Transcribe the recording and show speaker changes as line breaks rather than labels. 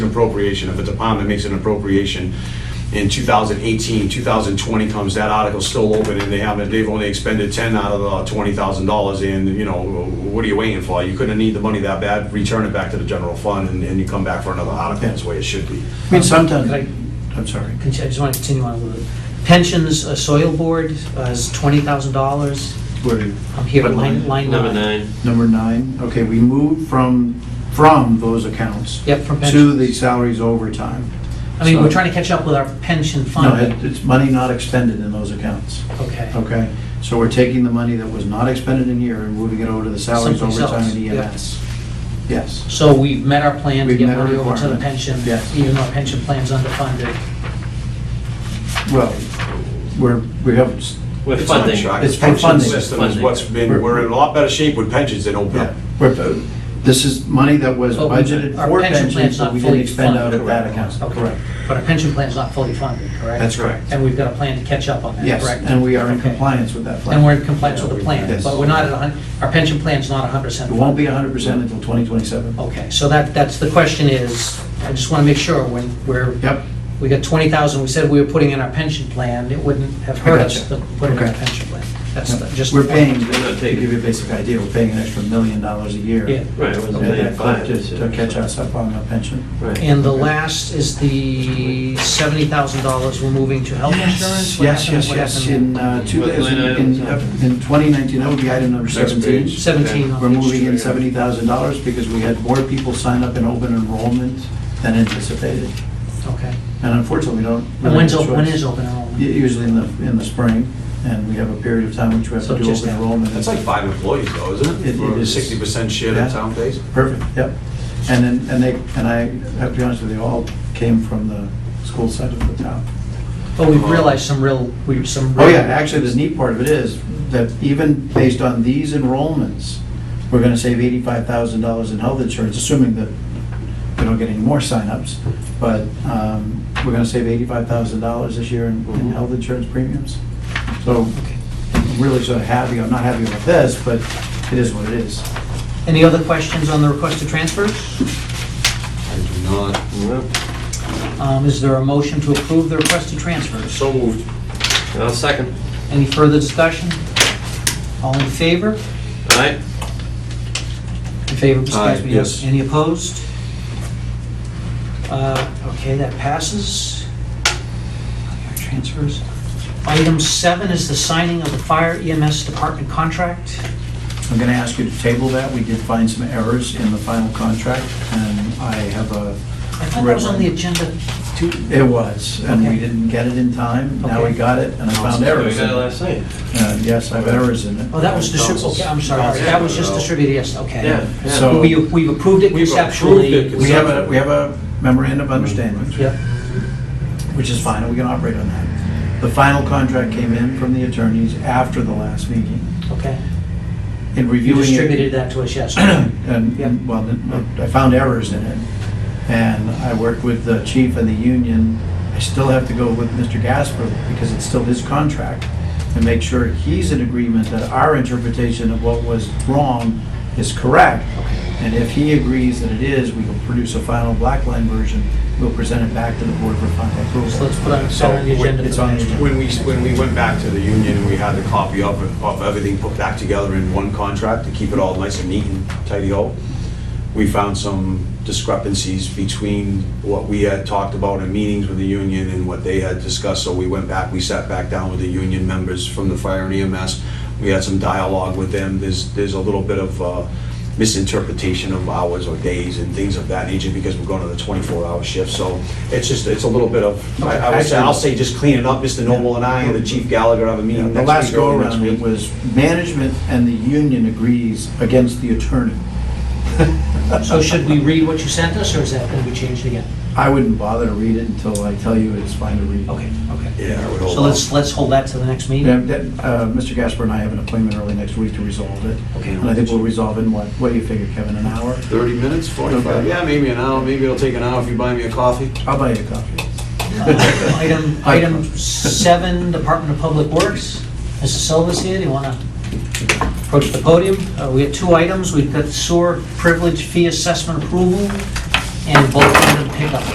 appropriation, if a department makes an appropriation in 2018, 2020 comes, that article's still open and they haven't, they've only expended 10 out of uh, the $20,000 and, you know, what are you waiting for? You couldn't need the money that bad, return it back to the general fund and and you come back for another article, that's the way it should be.
I mean, sometimes,
Could I-
I'm sorry.
Con- I just want to continue on a little bit. Pensions, uh, soil board uh, is twenty thousand dollars.
Where are you?
I'm here,
What
line, line
Number
nine.
nine,
Number nine, okay, we moved from, from those accounts
Yep, from
to the
pensions.
salaries overtime.
I mean, we're
so-
trying to catch up with our pension
No,
fund.
it- it's money not expended in those accounts,
Okay,
okay? So we're taking the money that was not expended in here and moving it over to the salaries
Someplace
overtime
else,
and
yeah.
EMS. Yes,
so we've met our plan to
We've
get
met our
money over to the
requirement.
pension,
Yes.
even though our pension plan's underfunded.
well, we're, we have,
we're
It's not a
funding.
shock.
It's
The pension
funding.
System is what's been, we're in a lot better shape with pensions than E
yeah,
OPEB.
we're, this is money that was
But we-
budgeted
our
for
pension
pensions,
plan's
but
not
we didn't
fully
expend out
funded.
of that
Correct.
account.
Okay. But our pension plan's not fully funded, correct?
That's correct.
And we've got a plan to catch up on that,
Yes,
correct?
and we are in
Okay.
compliance with that plan.
And we're in compliance with the plan,
Yes.
but we're not at a hun, our pension plan's not a hundred percent
It won't be 100% until 2027.
Okay, so that, that's, the question is, I just want to make sure when we're,
Yep,
we got 20,000, we said we were putting in our pension plan, it wouldn't have hurt us to
gotcha.
put it in our
Okay.
pension plan. That's the- just.
we're paying, to
They're not taking-
give you a basic idea, we're paying an extra million dollars a year.
Yeah.
Right, it was a million
Okay,
five.
To to catch us up on the pension.
Right.
And the last is the $70,000 we're moving to health insurance? What
Yes,
happened-
yes,
what
yes,
happened
in uh, two-
What line
in- in
items?
in 2019, that would be item number
Next
17.
page.
17
We're
on page
moving in
two.
$70,000 because we had more people sign up in open enrollment than anticipated.
Okay.
And unfortunately, we don't.
And
really
when's,
have a
op- when
choice.
is open
U-
enrollment?
Usually in the, in the spring, and we have a period of time which we have
So
to do
just
open
now.
enrollment.
That's like five employees though, isn't it?
It- it
For
is.
60% share
Yeah.
of town base?
Perfect, yep. And then, and they, and I have to be honest with you, all came from the school side of the town.
But Oh, we've realized some real, we, some.
Oh,
real-
yeah, actually, the neat part of it is that even based on these enrollments, we're gonna save eighty-five thousand dollars in health insurance, assuming that we don't get any more signups. But, um, we're gonna save eighty-five thousand dollars this year in,
Mm-hmm.
in health insurance premiums. So I'm really sort of happy, I'm not happy with this, but it is what it is.
Any other questions on the requested transfers?
I do not.
Well,
Um, Is there a motion to approve the requested transfers?
So moved.
I'll second.
Any further discussion? All in favor?
All right,
In favor, Mr.
Aye,
Gaspar?
yes.
Any opposed? Uh, Okay, that passes. Transfers. Item seven is the signing of the fire EMS department contract.
I'm going to ask you to table that. We did find some errors in the final contract, and I have a,
I thought that was on the agenda.
it was, and we
Okay.
didn't get it in time. Now we
Okay.
got it, and I found
we
errors. in
got it
it.
last night.
Uh, Yes, I have errors in it.
Oh, that was distributed, okay, I'm sorry,
Council.
that was just distributed, yes,
Yeah,
okay.
yeah.
So-
We- We've approved it
We've approved
conceptually.
it
We have a, we have a memorandum of understanding,
Yep,
which is fine, and we can operate on that. The final contract came in from the attorneys after the last meeting.
okay.
In
You
reviewing it.
distributed that to us, yes. Yep.
and, well, I found errors in it. And I worked with the chief and the union. I still have to go with Mr. Gasper because it's still his contract and make sure he's in agreement that our interpretation of what was wrong is correct. And if he agrees that it is, we will produce a final black line version. We'll present it back to the board for final
So let's
approval.
put it on the
So,
agenda.
it's
for
on the
next
agenda.
When we, when we went back to the union, we had the copy of, of everything put back together in one contract to keep it all nice and neat and tidy up. We found some discrepancies between what we had talked about in meetings with the union and what they had discussed. So we went back, we sat back down with the union members from the fire and EMS. We had some dialogue with them. There's, there's a little bit of uh, misinterpretation of hours or days and things of that nature because we're going to the 24-hour shift. So it's just, it's a little bit of, I I would say, I'll say just clean it up, Mr. Noble and I and the Chief Gallagher have a
You know,
meeting
The
next
last
week, early next
go-around
week.
it was management and the union agrees against the attorney.
So should we read what you sent us, or is that going to be changed again?
I wouldn't bother to read it until I tell you it's fine to read.
Okay, okay.
Yeah, I would hope.
So let's, let's hold that to the next
Yeah,
meeting.
that, uh, Mr. Gasper and I have an appointment early next week to resolve it.
Okay.
And I think we'll resolve in what, what do you figure, Kevin, an hour?
30 minutes, 45?
Okay.
Yeah, maybe an hour, maybe it'll take an hour if you buy me a coffee.
I'll buy you a coffee.
Uh, Item, item seven, Department of Public Works. Mrs. Silva's here, do you want to approach the podium? Uh, We have two items, we've got sewer privilege fee assessment approval and both of them pick up.